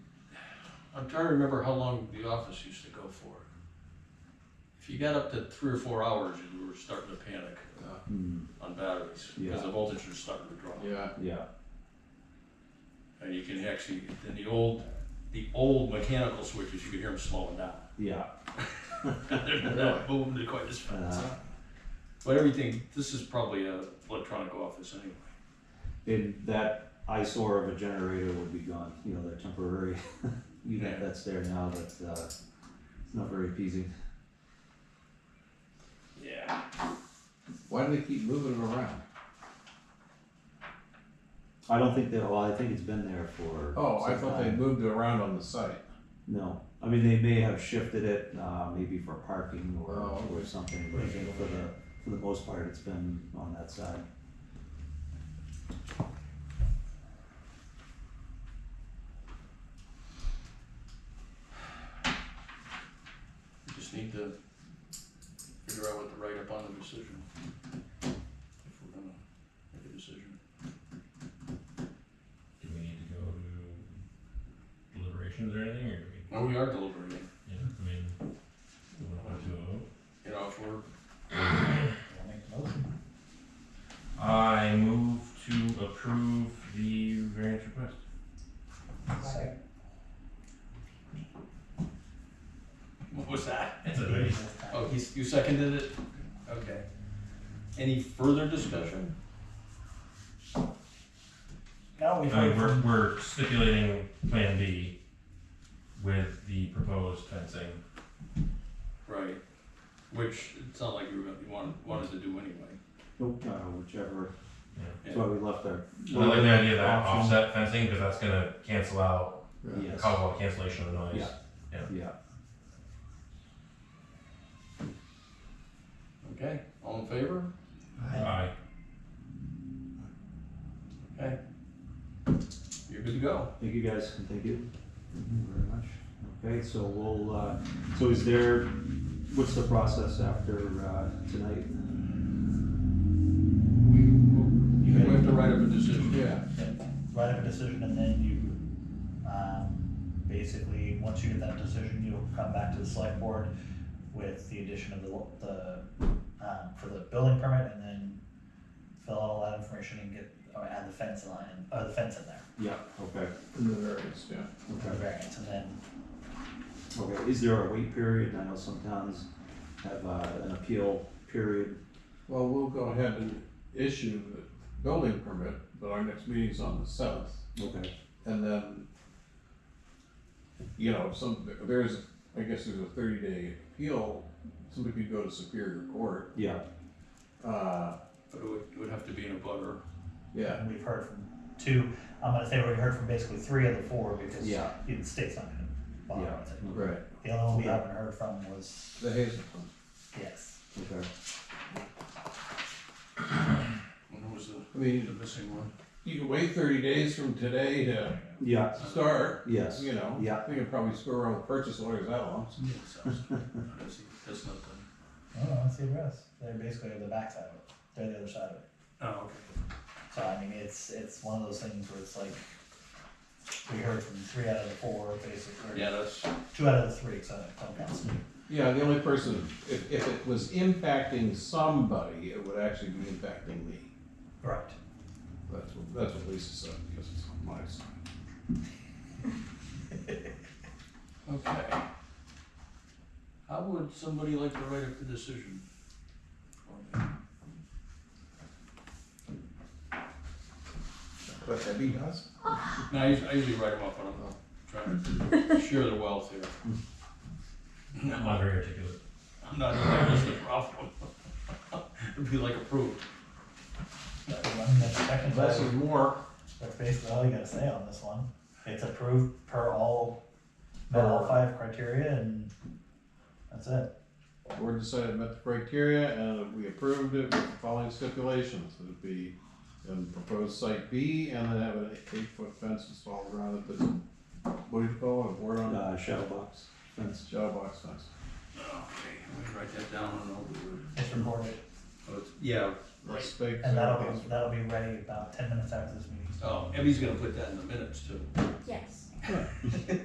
I'm trying to remember how long the office used to go for. If you got up to three or four hours, you were starting to panic uh, Hmm, on batteries, Yeah. because the voltage was starting to drop. Yeah, yeah, And you can actually, in the old, the old mechanical switches, you could hear them slowing down. yeah. They're not moving quite as fast. Uh, But everything, this is probably a electronic office anyway. and that eyesore of a generator would be gone, you know, that temporary unit Yeah. that's there now, but, uh, it's not very appeasing. Yeah. why do they keep moving it around? I don't think that, well, I think it's been there for. Oh, I some thought they time. moved it around on the site. No, I mean, they may have shifted it, uh, maybe for parking or, Oh, or something, but I think for the, for the most part, it's been on that side. Just need to figure out what to write up on the decision. If we're gonna make a decision. Do we need to go to deliberations or anything, or do we? Well, we are delivering it, Yeah, I mean, do we want to vote? you know, if we're, I move to approve the variance request. what was that? It's a very. Oh, he's, you seconded it? Okay. Any further discussion? Now we've heard we're, from, we're stipulating Plan B with the proposed fencing. Right, which it sounded like you were, gonna- you wanted, wanted to do anyway. Nope, uh, whichever, that's Yeah. why we left our. I like the idea of that Option. offset fencing, because that's gonna cancel out, Yes. cause all the cancellation of the noise. Yeah. Yeah, Okay, all in favor? Aye. Okay. You're good to go. thank you guys, and thank you very much. Okay, so we'll, uh, so is there, what's the process after, uh, tonight? We, we have to write up a decision. Yeah, write up a decision and then you, um, basically, once you get that decision, you'll come back to the select board with the addition of the, lo- the, um, for the building permit and then fill out all that information and get, or add the fence line, or the fence in there, Yeah, okay, in the variance, yeah. for okay, variance, and then okay, is there a wait period? I know some towns have, uh, an appeal period. Well, we'll go ahead and issue the building permit, but our next meeting's on the seventh, Okay, and then, you know, some, there's, I guess there's a thirty day appeal, somebody could go to Superior Court, yeah, uh, But it would, it would have to be in a butter. yeah, and we've heard from two, I'm gonna say we heard from basically three of the four because Yeah. the state's not gonna bother Yeah. with it. right, The only one we Okay. haven't heard from was, the Hazelton. yes, okay, When was the, I mean, the missing one? you can wait thirty days from today to yeah, start, yes, you know. Yeah. We can probably screw around with purchase orders that long. That's, that's not done. I don't know, it's the rest, they're basically the backside of it, they're the other side of it. Oh, So I mean, it's, it's one of those things where it's like, we heard from three out of the four, okay. basically, Yeah, or that's, two out of the three, so I don't count. Yeah, the only person, if, if it was impacting somebody, it would actually be impacting me. Right. That's what, that's what Lisa said, because it's on my side. okay. How would somebody like to write up the decision? for me? But that'd be nice. No, I usually, I usually write them up when I'm trying to share the wealth here. I'm not very articulate. I'm not, that's the problem. It'd be like approved. That's one, that's second, Less is that's more. basically all you gotta say on this one, it's approved per all, met all five criteria and that's it. Board decided it met the criteria and we approved it with the following stipulations. It'd be in proposed site B and then have an eight-foot fence installed around it, but what do you call it, a board on, uh, shadow box fence. shadow box fence. Oh, Okay, I'm gonna write that down and I'll do it. It's recorded, Oh, it's- Yeah, Let's speak. and that'll be, that'll be ready about ten minutes after this meeting. oh, Emmy's gonna put that in the minutes too. Yes.